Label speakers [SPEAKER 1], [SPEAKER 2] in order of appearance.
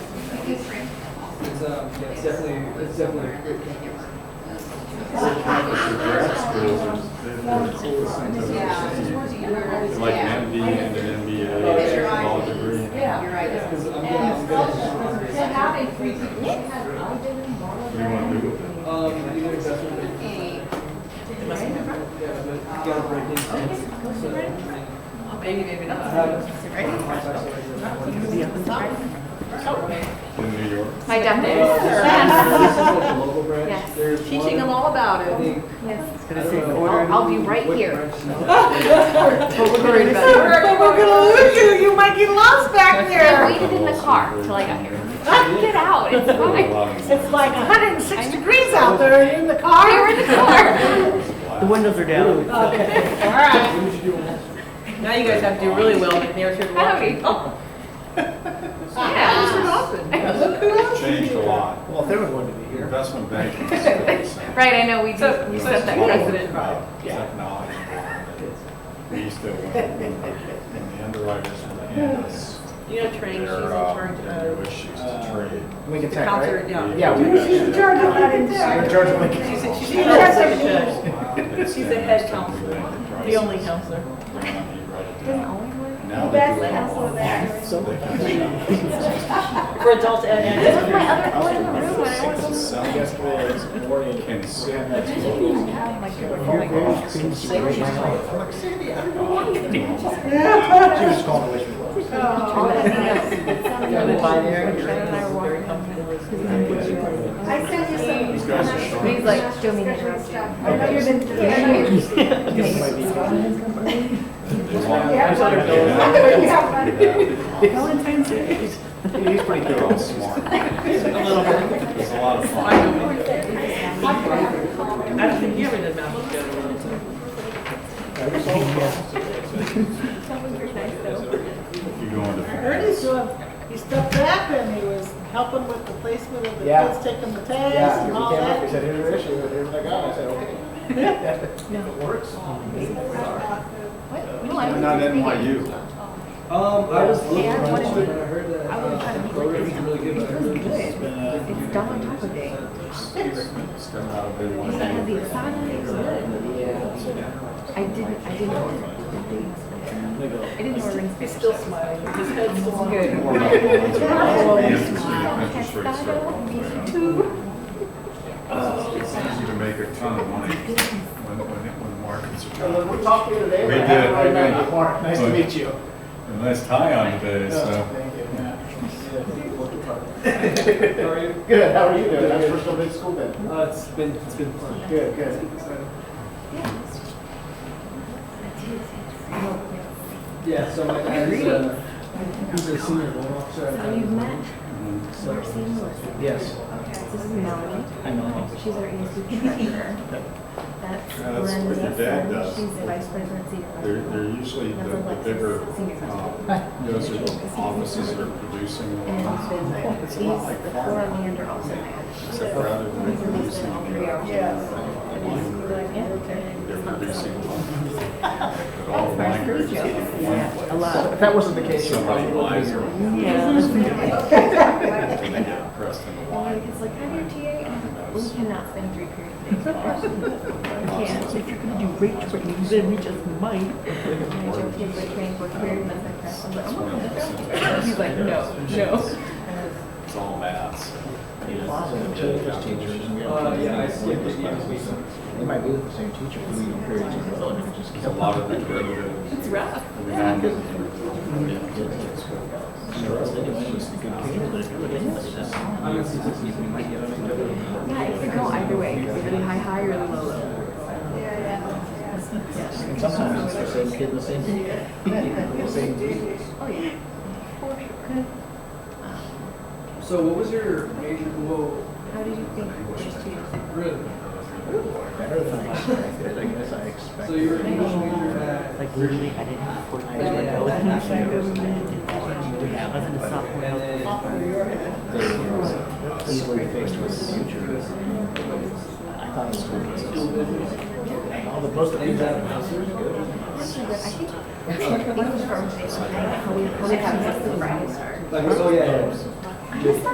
[SPEAKER 1] history.
[SPEAKER 2] It's, um, yeah, it's definitely, it's definitely
[SPEAKER 3] The grad schools are the coolest things I've ever seen. They're Like an MD and an MBA, law degree.
[SPEAKER 1] You're right.
[SPEAKER 2] because I'm getting I'm getting some
[SPEAKER 3] What do you want to do with it?
[SPEAKER 2] Um, either investment or yeah, but you gotta break into it. So, I mean,
[SPEAKER 1] Maybe, maybe
[SPEAKER 2] I
[SPEAKER 1] not.
[SPEAKER 2] have contacts already.
[SPEAKER 3] In New York?
[SPEAKER 4] My
[SPEAKER 2] Uh,
[SPEAKER 4] deaf
[SPEAKER 2] This is like the local branch.
[SPEAKER 4] Yes.
[SPEAKER 2] There's
[SPEAKER 1] Teaching them
[SPEAKER 2] one,
[SPEAKER 1] all about
[SPEAKER 2] I
[SPEAKER 1] it.
[SPEAKER 2] think,
[SPEAKER 4] Yes.
[SPEAKER 2] I don't know
[SPEAKER 4] I'll, I'll be right
[SPEAKER 2] what
[SPEAKER 4] here.
[SPEAKER 2] branch she's at.
[SPEAKER 4] But we're worried about
[SPEAKER 1] But we're gonna lose you, you might get lost back
[SPEAKER 4] it. I waited in the car till I got here. Get out, it's fine.
[SPEAKER 3] It's
[SPEAKER 1] like hundred and six degrees out there, you're in the car.
[SPEAKER 4] They were in the car.
[SPEAKER 5] The windows are down.
[SPEAKER 1] All right.
[SPEAKER 2] What did you Um, do on that?
[SPEAKER 6] Now you guys have to do really well in the narrative.
[SPEAKER 4] Howdy. Yeah.
[SPEAKER 3] Changed a lot.
[SPEAKER 5] Well, if they were going to be here.
[SPEAKER 3] Investment banking is still the same.
[SPEAKER 4] Right, I know, we
[SPEAKER 6] So-
[SPEAKER 4] do, we
[SPEAKER 3] It's
[SPEAKER 4] set that
[SPEAKER 3] all
[SPEAKER 4] precedent.
[SPEAKER 3] about uh, Technology. We still went, and the underwriters will hand us
[SPEAKER 6] You know, Trang, she's in
[SPEAKER 3] their, uh,
[SPEAKER 6] charge
[SPEAKER 3] their new
[SPEAKER 6] of
[SPEAKER 3] issues to trade.
[SPEAKER 5] We can
[SPEAKER 6] the
[SPEAKER 5] take,
[SPEAKER 6] concert,
[SPEAKER 5] right?
[SPEAKER 6] yeah.
[SPEAKER 5] Yeah, we
[SPEAKER 3] do that
[SPEAKER 5] She's
[SPEAKER 3] shit.
[SPEAKER 5] We're Georgia Lincoln.
[SPEAKER 6] She's, a- she's
[SPEAKER 1] She's
[SPEAKER 6] a
[SPEAKER 1] a-
[SPEAKER 6] counselor.
[SPEAKER 3] It's
[SPEAKER 6] She's
[SPEAKER 3] the
[SPEAKER 6] a head
[SPEAKER 3] next time we
[SPEAKER 6] counselor,
[SPEAKER 3] look at
[SPEAKER 6] the only
[SPEAKER 3] prices.
[SPEAKER 6] counselor.
[SPEAKER 3] They're gonna be right at
[SPEAKER 4] Doesn't
[SPEAKER 3] that.
[SPEAKER 4] always work.
[SPEAKER 3] Now they
[SPEAKER 7] That's
[SPEAKER 3] do it
[SPEAKER 7] the hassle of
[SPEAKER 3] online.
[SPEAKER 7] that.
[SPEAKER 3] So they can shop.
[SPEAKER 6] For adults and
[SPEAKER 4] This is
[SPEAKER 6] adults.
[SPEAKER 4] my other boy in the room when I
[SPEAKER 3] Six
[SPEAKER 4] was.
[SPEAKER 3] is selling
[SPEAKER 5] Yesterday,
[SPEAKER 3] products
[SPEAKER 5] this morning.
[SPEAKER 3] and seven
[SPEAKER 4] I
[SPEAKER 3] is
[SPEAKER 4] didn't even have my keyboard. Oh my gosh.
[SPEAKER 5] She was calling away from the
[SPEAKER 1] Oh,
[SPEAKER 4] All that
[SPEAKER 1] that's nice.
[SPEAKER 4] Shannon and I were walking.
[SPEAKER 7] I sent you some.
[SPEAKER 3] These guys are short.
[SPEAKER 4] He's like, do me the
[SPEAKER 7] Different
[SPEAKER 4] interruption.
[SPEAKER 7] stuff. I know you've been. You
[SPEAKER 3] They want-
[SPEAKER 7] have one. You
[SPEAKER 3] they want-
[SPEAKER 7] have one.
[SPEAKER 3] they want-
[SPEAKER 5] He's pretty
[SPEAKER 3] They're all
[SPEAKER 5] cool.
[SPEAKER 3] smart. It's a lot of fun.
[SPEAKER 6] I don't think you ever did math together.
[SPEAKER 3] You go into.
[SPEAKER 8] Ernie's doing, he stepped back and he was helping with the placement of the
[SPEAKER 5] Yeah.
[SPEAKER 8] kids taking the tags
[SPEAKER 5] Yeah,
[SPEAKER 8] and
[SPEAKER 5] he
[SPEAKER 8] all
[SPEAKER 5] came up, he
[SPEAKER 8] that.
[SPEAKER 5] said, here's your issue, here's what I got. I said, okay. If it works.
[SPEAKER 4] What? No, I
[SPEAKER 3] They're
[SPEAKER 4] was
[SPEAKER 3] not
[SPEAKER 4] just thinking-
[SPEAKER 3] NYU.
[SPEAKER 2] Um, I was looking
[SPEAKER 4] Yeah,
[SPEAKER 2] around,
[SPEAKER 4] what
[SPEAKER 2] but
[SPEAKER 4] is
[SPEAKER 2] I
[SPEAKER 4] it?
[SPEAKER 2] heard that,
[SPEAKER 4] I would've tried to
[SPEAKER 2] uh,
[SPEAKER 4] make
[SPEAKER 2] Boulder is
[SPEAKER 4] like
[SPEAKER 2] really good, but I heard
[SPEAKER 4] this. It was
[SPEAKER 2] it's
[SPEAKER 4] good.
[SPEAKER 2] been, uh,
[SPEAKER 4] It's Don on top of it.
[SPEAKER 3] It's coming out of NYU.
[SPEAKER 4] It's not the assignment. I didn't, I didn't. I didn't know we were
[SPEAKER 6] He's still smiling. His head's still on.
[SPEAKER 4] good.
[SPEAKER 3] More about the ones that are on the interest rate, interest rates are going down. It's easy to make a ton of money when, when, when markets are down.
[SPEAKER 5] We talked to you today.
[SPEAKER 3] We did, we did.
[SPEAKER 5] Mark, nice to meet you.
[SPEAKER 3] A nice tie on today,
[SPEAKER 5] Yeah,
[SPEAKER 3] so.
[SPEAKER 5] Thank you. yeah.
[SPEAKER 2] How are you?
[SPEAKER 5] Good, how are you doing? That's your first day of school then?
[SPEAKER 2] Uh, it's been, it's been fun.
[SPEAKER 5] Good, good.
[SPEAKER 2] So,
[SPEAKER 4] Yes.
[SPEAKER 2] Yeah, so my dad is, uh, he's a senior loan officer. at
[SPEAKER 4] So you
[SPEAKER 2] Bank of
[SPEAKER 4] met
[SPEAKER 3] Mm-hmm.
[SPEAKER 2] America.
[SPEAKER 4] Marcy Melissa.
[SPEAKER 5] Yes.
[SPEAKER 4] This is Melanie.
[SPEAKER 5] I know.
[SPEAKER 4] She's our ESG treasurer. That's
[SPEAKER 3] Yeah, that's
[SPEAKER 4] Lynn
[SPEAKER 3] what your dad
[SPEAKER 4] Nixon.
[SPEAKER 3] does.
[SPEAKER 4] She's the vice president, senior vice
[SPEAKER 3] They're, they're
[SPEAKER 4] president.
[SPEAKER 3] usually the,
[SPEAKER 4] That's
[SPEAKER 3] the
[SPEAKER 4] Alexis,
[SPEAKER 3] bigger,
[SPEAKER 4] senior
[SPEAKER 3] um,
[SPEAKER 4] vice
[SPEAKER 3] those are the offices that are producing
[SPEAKER 4] And
[SPEAKER 3] loans.
[SPEAKER 4] then these, the four on the end are also mad.
[SPEAKER 3] Except rather than producing on the line grade, they're producing loans. But all the line grades are in one
[SPEAKER 4] A
[SPEAKER 3] place.
[SPEAKER 4] lot.
[SPEAKER 5] If that wasn't the case, you'd
[SPEAKER 3] Somebody
[SPEAKER 5] probably
[SPEAKER 3] buys
[SPEAKER 5] wouldn't be here.
[SPEAKER 3] them
[SPEAKER 4] Yeah.
[SPEAKER 3] and they get pressed in the
[SPEAKER 4] And
[SPEAKER 3] line.
[SPEAKER 4] it's like, I'm your TA and I'm like, we cannot spend three periods a day. Can't.
[SPEAKER 5] If you're gonna do rate training, you better reach out to Mike.
[SPEAKER 4] And I joke, he's like, training for career, that's my press. I'm like, I'm not gonna go.
[SPEAKER 3] He's
[SPEAKER 4] He's like, no, no.
[SPEAKER 3] It's all maths.
[SPEAKER 2] Uh, yeah, I skipped
[SPEAKER 5] E
[SPEAKER 2] it, yeah, we-
[SPEAKER 5] They might be with the same teacher for legal periods as well, and it just
[SPEAKER 3] There's a lot of the derivatives.
[SPEAKER 4] It's
[SPEAKER 3] I
[SPEAKER 4] rough.
[SPEAKER 3] mean, I'm getting it.
[SPEAKER 2] I'm in statistics, you might get it.
[SPEAKER 4] Yeah, it could go either way. It could be really high, high or low, low.
[SPEAKER 5] And sometimes it's the same kid, the same teacher. The same teacher.
[SPEAKER 4] Oh, yeah. For sure.
[SPEAKER 2] So what was your major, whoa,
[SPEAKER 4] How did you think first two years?
[SPEAKER 2] really?
[SPEAKER 5] Better than I expected, I guess I expected.
[SPEAKER 2] So you were an English major at?
[SPEAKER 9] Like literally, I didn't have four years
[SPEAKER 5] Yeah.
[SPEAKER 9] when I was in the show, and I didn't college. I was in a sophomore.
[SPEAKER 2] And then,
[SPEAKER 5] Easily faced with the future. I thought it was cool. And all the most of
[SPEAKER 2] and
[SPEAKER 5] these.
[SPEAKER 2] that professor?
[SPEAKER 4] Actually, but I think English for our station, I don't know how we, how we have this the brightest.
[SPEAKER 2] Like, oh, yeah, yeah.
[SPEAKER 4] I just